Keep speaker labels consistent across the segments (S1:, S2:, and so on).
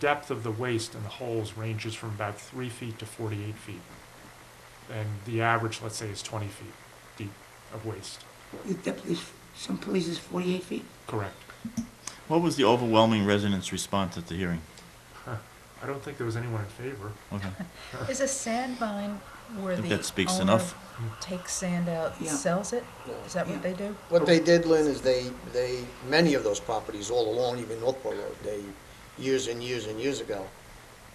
S1: depth of the waste in the holes ranges from about three feet to forty-eight feet. And the average, let's say, is twenty feet deep of waste,
S2: The depth is, some places 48 feet.
S1: correct?
S3: What was the overwhelming residents' response at the hearing?
S1: I don't think there was anyone in favor.
S3: Okay.
S4: Is a sand mine where
S3: think
S4: the
S3: that speaks
S4: owner
S3: enough.
S4: takes sand out, and
S2: Yeah.
S4: sells it? Is that
S2: Yeah.
S4: what they do?
S5: What they did, Lynn, is they, they, many of those properties all along, even Northport Road, they, years and years and years ago,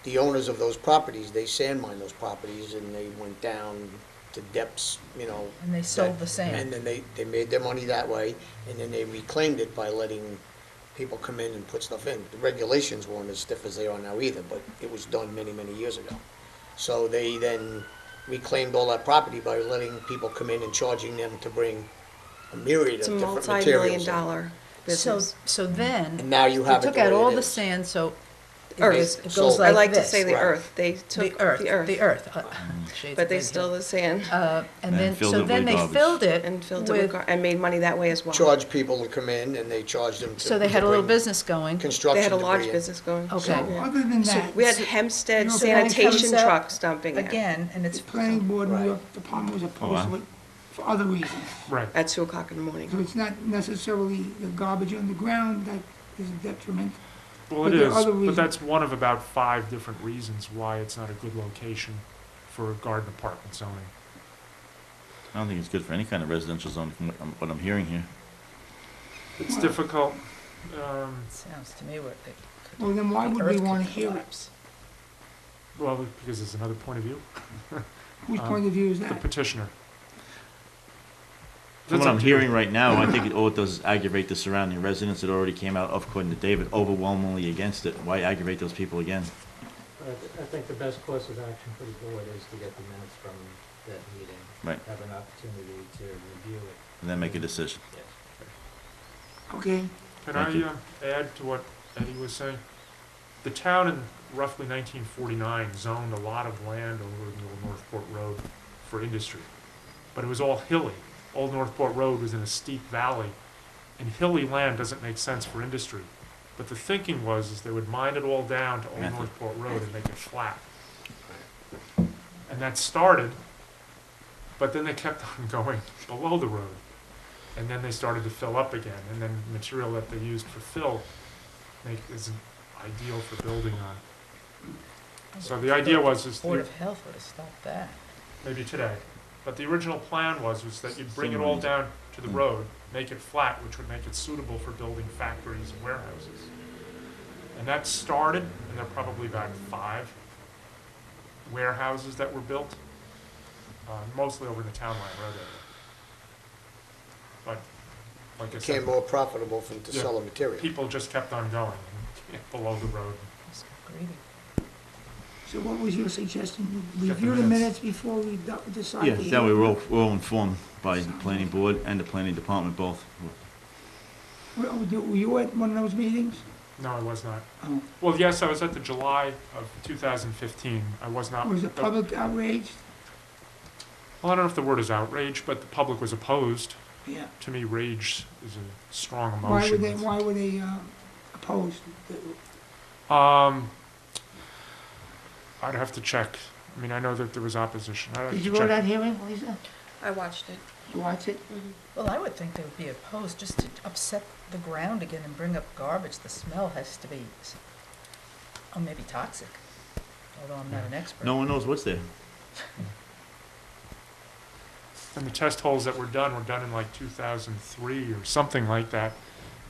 S5: the owners of those properties, they sand mined those properties and they went down to depths, you know.
S4: And they sold
S5: that-
S4: the sand.
S5: And then they, they made their money that way and then they reclaimed it by letting people come in and put stuff in. The regulations weren't as stiff as they are now either, but it was done many, many years ago. So they then reclaimed all that property by letting people come in and charging them to bring a myriad
S6: It's a
S5: of different materials.
S6: multi-million
S5: in.
S6: dollar
S4: So,
S6: business.
S4: so then.
S5: And now you
S4: they
S5: have it
S4: Took
S5: the
S4: out
S5: way
S4: all
S5: it
S4: the
S5: is.
S4: sand, so it
S6: Earth.
S4: goes- it
S5: Sold.
S4: goes
S6: I
S4: like
S6: like to
S4: this.
S6: say the
S5: Right.
S6: earth, they took
S4: The earth, the earth. uh, shades
S6: But
S4: of
S6: they
S4: red
S6: still
S4: here.
S6: the sand
S4: Uh, and
S3: And
S4: then,
S3: filled it
S4: so
S3: with
S4: then they
S3: garbage.
S4: filled it
S6: and filled it with,
S4: with,
S6: gar- and made money that way as well.
S5: Charge people to come in and they charge them to.
S4: so they had
S5: to
S4: a little
S5: bring
S4: business going.
S5: Construction
S6: They had a
S5: debris
S6: large
S5: in.
S6: business going.
S4: Okay.
S2: Other than that,
S6: We had
S2: the
S6: Hempstead
S2: So
S4: then it
S6: sanitation
S4: comes up
S6: trucks dumping it
S4: Again, and it's,
S2: planning board, and the
S5: Right.
S2: department was
S3: Oh, wow.
S2: opposed to it for other reasons.
S1: Right,
S6: at two o'clock in the morning.
S2: So it's not necessarily the garbage on the ground that is a detriment.
S1: well,
S2: But
S1: it
S2: there are
S1: is,
S2: other
S1: but
S2: reasons.
S1: that's one of about five different reasons why it's not a good location for garden apartment zoning.
S3: I don't think it's good for any kind of residential zone, from what I'm, what I'm hearing here.
S1: It's difficult, um,
S4: sounds to me where they. could-
S2: Well, then why
S4: the
S2: would
S4: earth
S2: we
S4: could
S2: want to hear it?
S4: collapse.
S1: well, because there's another point of view,
S2: Whose
S1: Um,
S2: point of view is
S1: the
S2: that?
S1: petitioner.
S3: From
S1: That's
S3: what
S1: up
S3: I'm
S1: to you.
S3: hearing right now, I think it- all it does is aggravate the surrounding residents that already came out, according to David, overwhelmingly against it. Why aggravate those people again?
S7: I th- I think the best course of action for the board is to get the minutes from that meeting.
S3: Right.
S7: Have an opportunity to review it.
S3: And then make a decision.
S7: Yes.
S2: Okay,
S1: Can
S3: Thank
S1: I
S3: you.
S1: um, add to what Eddie was saying? The town in roughly 1949 zoned a lot of land over in Old Northport Road for industry, but it was all hilly. Old Northport Road was in a steep valley, and hilly land doesn't make sense for industry. But the thinking was is they would mine it all down to Old
S3: Method.
S1: Northport Road and make it flat. And that started, but then they kept on going below the road and then they started to fill up again, and then material that they used for fill make, isn't ideal for building on. So the idea was is
S4: Board
S1: the-
S4: of Health would have stopped that.
S1: maybe today, but the original plan was was that you'd bring it all down to the road, make it flat, which would make it suitable for building factories and warehouses. And that started, and there are probably about five warehouses that were built, uh, mostly over in the town line road area. But like I said.
S5: Became more profitable for them to
S1: Yeah.
S5: sell the material.
S1: people just kept on going below the road.
S4: It's greedy.
S2: so what was your suggestion?
S1: the
S2: Review the
S1: minutes.
S2: minutes before we do- decide.
S3: Yeah,
S2: the-
S3: that way we're all, we're all informed by the planning board and the planning department both.
S2: Were were you at one of those meetings?
S1: No, I was not.
S2: Oh.
S1: Well, yes, I was at the July of 2015. I was not.
S2: Was the public outraged?
S1: Well, I don't know if the word is outrage, but the public was opposed.
S2: Yeah.
S1: To me, rage is a strong emotion.
S2: Why were they, why were they uh, opposed?
S1: Um, I'd have to check. I mean, I know that there was opposition. I'd have
S2: Did
S1: to
S2: you go to
S1: check.
S2: that hearing, Lisa?
S6: I watched it.
S2: You watch it?
S4: Well, I would think they would be opposed just to upset the ground again and bring up garbage. The smell has to be, s- or maybe toxic, although I'm not an expert.
S3: No one knows what's there.
S1: And the test holes that were done were done in like 2003 or something like that,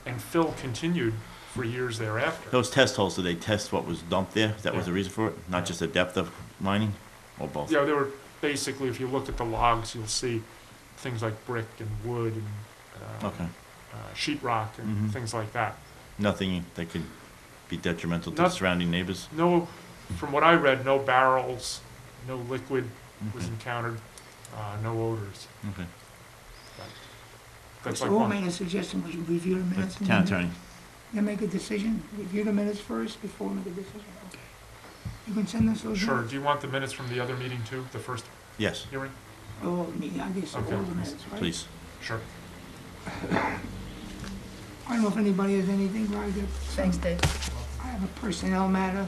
S1: and Phil continued for years thereafter.
S3: Those test holes, did they test what was dumped there? That was the reason for it? Not just the depth of mining or both?
S1: Yeah, they were basically, if you look at the logs, you'll see things like brick and wood and uh,
S3: Okay.
S1: uh, sheet rock and
S3: Mhm.
S1: things like that.
S3: Nothing that could be detrimental to the
S1: Not-
S3: surrounding neighbors?
S1: No, from what I read, no barrels, no liquid was encountered, uh, no odors.
S3: Okay.
S1: That's
S2: So
S1: like
S2: who
S1: one.
S2: made a suggestion, we should review the minutes? and
S3: Town
S2: then-
S3: attorney.
S2: Then make a decision, review the minutes first before we make a decision, okay. You can send us those?
S1: Sure.
S2: minutes?
S1: Do you want the minutes from the other meeting too? The first
S3: Yes,
S1: hearing?
S2: Oh, me, I guess, all
S1: Okay.
S2: the minutes, right?
S3: please.
S1: Sure.
S2: I don't know if anybody has anything, right?
S4: Thanks, Dave.
S2: I have a personnel matter.